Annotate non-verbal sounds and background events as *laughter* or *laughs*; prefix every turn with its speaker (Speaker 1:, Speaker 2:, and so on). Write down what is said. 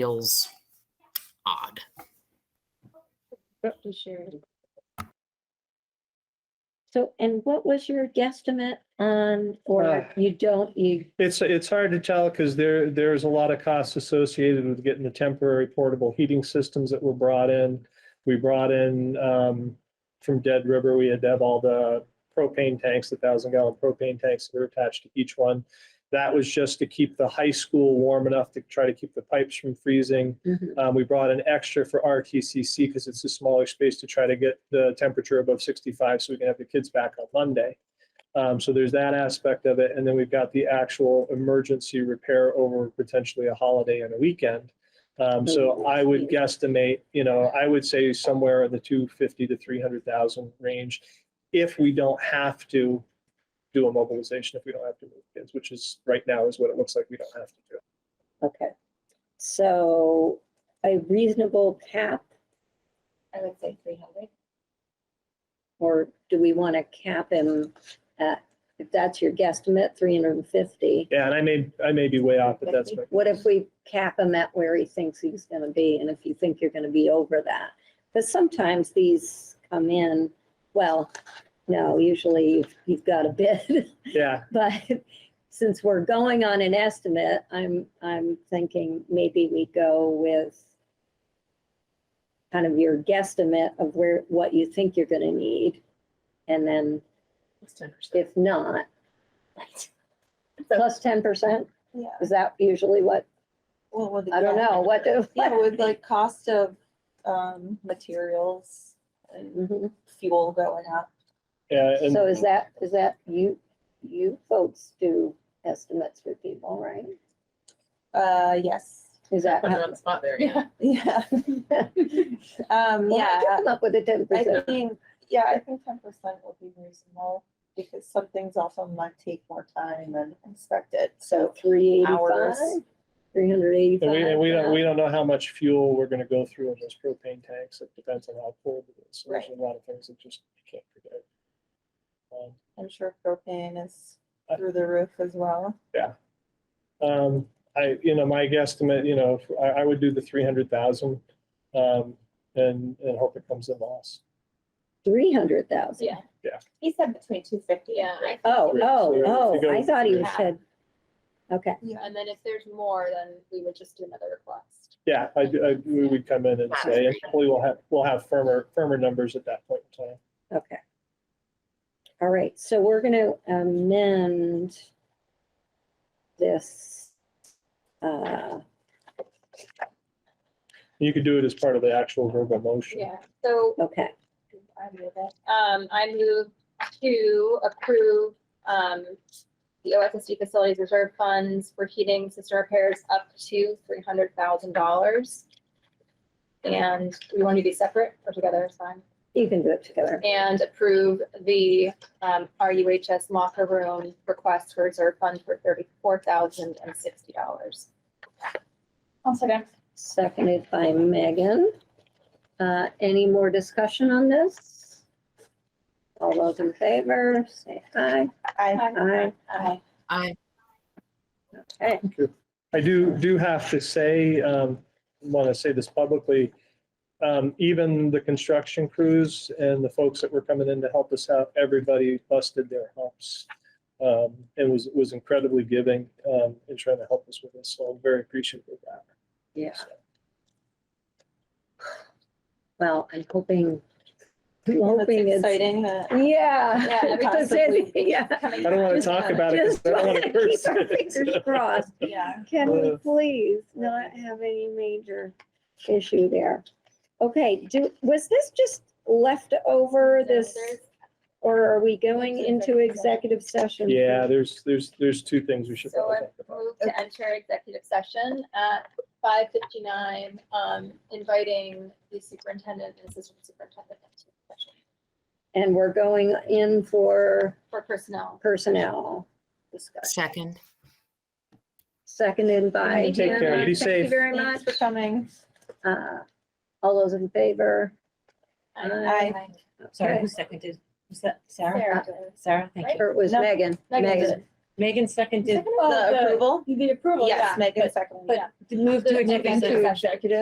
Speaker 1: feels odd.
Speaker 2: Just share it. So, and what was your guesstimate on, or
Speaker 3: Ah.
Speaker 2: you don't, you,
Speaker 3: It's, it's hard to tell because there, there's a lot of costs associated with getting the temporary portable heating systems that were brought in. We brought in, um, from Dead River, we had to have all the propane tanks, the thousand gallon propane tanks that are attached to each one. That was just to keep the high school warm enough to try to keep the pipes from freezing.
Speaker 2: Mhm.
Speaker 3: Um, we brought an extra for RTCC because it's a smaller space to try to get the temperature above sixty-five so we can have the kids back on Monday. Um, so there's that aspect of it. And then we've got the actual emergency repair over potentially a holiday and a weekend. Um, so I would guesstimate, you know, I would say somewhere in the two fifty to three hundred thousand range. If we don't have to do a mobilization, if we don't have to move kids, which is right now is what it looks like we don't have to do.
Speaker 2: okay. So a reasonable cap,
Speaker 4: I would say three hundred.
Speaker 2: or do we want to cap him at, if that's your guesstimate, three hundred and fifty?
Speaker 3: Yeah, and I may, I may be way off, but that's. my-
Speaker 2: What if we cap him at where he thinks he's gonna be, and if you think you're gonna be over that? Because sometimes these come in, well, no, usually you've- you've got a bid. *laughs*
Speaker 3: Yeah,
Speaker 2: But since we're going on an estimate, I'm, I'm thinking maybe we go with kind of your guesstimate of where, what you think you're gonna need. And then if not, *laughs* plus ten percent,
Speaker 4: Yeah,
Speaker 2: is that usually what,
Speaker 4: well, with. the-
Speaker 2: I don't know, what *laughs* do?
Speaker 4: Yeah, with like cost of, um, materials and
Speaker 2: Mhm.
Speaker 4: fuel going up.
Speaker 3: yeah. and-
Speaker 2: So is that, is that you, you folks do estimates for people, right?
Speaker 4: Uh, yes,
Speaker 2: Is that?
Speaker 4: Uh-huh.
Speaker 5: Put it on the spot there, yeah.
Speaker 4: *laughs* yeah, um,
Speaker 2: *laughs* Well, how'd you
Speaker 4: yeah.
Speaker 2: Come up with a ten
Speaker 4: I
Speaker 2: percent.
Speaker 4: think, yeah, I think ten percent would be reasonable because some things also might take more time than expected,
Speaker 2: So
Speaker 4: so.
Speaker 2: three eighty-five,
Speaker 4: Hours.
Speaker 2: three hundred eighty-five.
Speaker 3: And we, and we don't, we don't know how much fuel we're gonna go through in those propane tanks. It depends on how cold it is. So There's a lot of things that just you can't predict. Um,
Speaker 4: I'm sure propane is through the roof as well.
Speaker 3: Um, I, you know, my guesstimate, you know, if- I, I would do the three hundred thousand, um, and, and hope it comes in loss.
Speaker 2: Three hundred thousand?
Speaker 5: Yeah.
Speaker 4: He said between two fifty
Speaker 5: Yeah, I
Speaker 2: Oh,
Speaker 3: Three, so
Speaker 2: oh,
Speaker 3: if you
Speaker 2: oh, I
Speaker 3: go-
Speaker 2: thought he
Speaker 5: Yeah.
Speaker 2: said, okay,
Speaker 5: And then if there's more, then we would just do another request.
Speaker 3: Yeah, I, do- I, we would come in and say, and hopefully we'll have, we'll have firmer, firmer numbers at that point in time.
Speaker 2: okay. All right, so we're gonna amend this. uh,
Speaker 3: You could do it as part of the actual verbal motion.
Speaker 5: Yeah, so
Speaker 2: Okay,
Speaker 4: I knew that.
Speaker 5: um, I move to approve um, the OSSD facilities reserve funds for heating system repairs up to three hundred thousand dollars. And we want to be separate or together, it's fine.
Speaker 2: you can do it together.
Speaker 5: And approve the um, RUHS locker room request for reserve fund for thirty-four thousand and sixty dollars.
Speaker 4: One second.
Speaker 2: Seconded by Megan. Uh, Any more discussion on this? All those in favor, say aye.
Speaker 4: I,
Speaker 2: Aye.
Speaker 4: I,
Speaker 1: I
Speaker 2: Okay,
Speaker 3: I do, do have to say, um, want to say this publicly. Um, even the construction crews and the folks that were coming in to help us out, everybody busted their humps. Um, and was, was incredibly giving, um, in trying to help us with this. So I'm very appreciative of that.
Speaker 2: yeah. Well, I'm hoping, I'm
Speaker 4: That's
Speaker 2: hoping it's.
Speaker 4: exciting that.
Speaker 2: *laughs* Yeah.
Speaker 5: Yeah,
Speaker 2: because
Speaker 4: possibly.
Speaker 5: *laughs*
Speaker 2: it- *laughs* Yeah.
Speaker 3: I don't want to
Speaker 2: Just-
Speaker 3: talk about it. 'cause
Speaker 2: Just
Speaker 3: I don't want to
Speaker 2: wanna *laughs* keep
Speaker 3: curse.
Speaker 2: our fingers
Speaker 3: *laughs*
Speaker 2: crossed.
Speaker 4: Yeah.
Speaker 2: Can we
Speaker 3: Uh.
Speaker 2: please not have any major issue there? Okay, do, was this just left over this, or are we going into executive session? for-
Speaker 3: Yeah, there's, there's, there's two things we should
Speaker 5: So
Speaker 3: probably
Speaker 5: I
Speaker 3: talk about.
Speaker 5: move to enter executive session at five fifty-nine, um, inviting the superintendent and assistant superintendent into the session
Speaker 2: And we're going in for
Speaker 5: for personnel.
Speaker 2: personnel discussion,
Speaker 1: second.
Speaker 2: seconded by
Speaker 3: Take care,
Speaker 2: Hannah.
Speaker 3: be
Speaker 2: Thank you
Speaker 3: safe.
Speaker 2: very
Speaker 4: Thanks
Speaker 2: much.
Speaker 4: for coming.
Speaker 2: Uh, All those in favor? Aye.
Speaker 4: Aye.
Speaker 6: Sorry,
Speaker 2: Okay.
Speaker 6: who seconded? Was that Sarah?
Speaker 5: Sarah.
Speaker 6: Sarah, thank you.
Speaker 2: Or it was
Speaker 4: No,
Speaker 2: Megan?
Speaker 5: Megan did.
Speaker 6: Megan seconded.
Speaker 5: The approval?
Speaker 6: The approval, yeah.
Speaker 5: Yes, Megan seconded.
Speaker 6: But move to
Speaker 7: The-
Speaker 6: executive
Speaker 7: executive session.
Speaker 6: executive.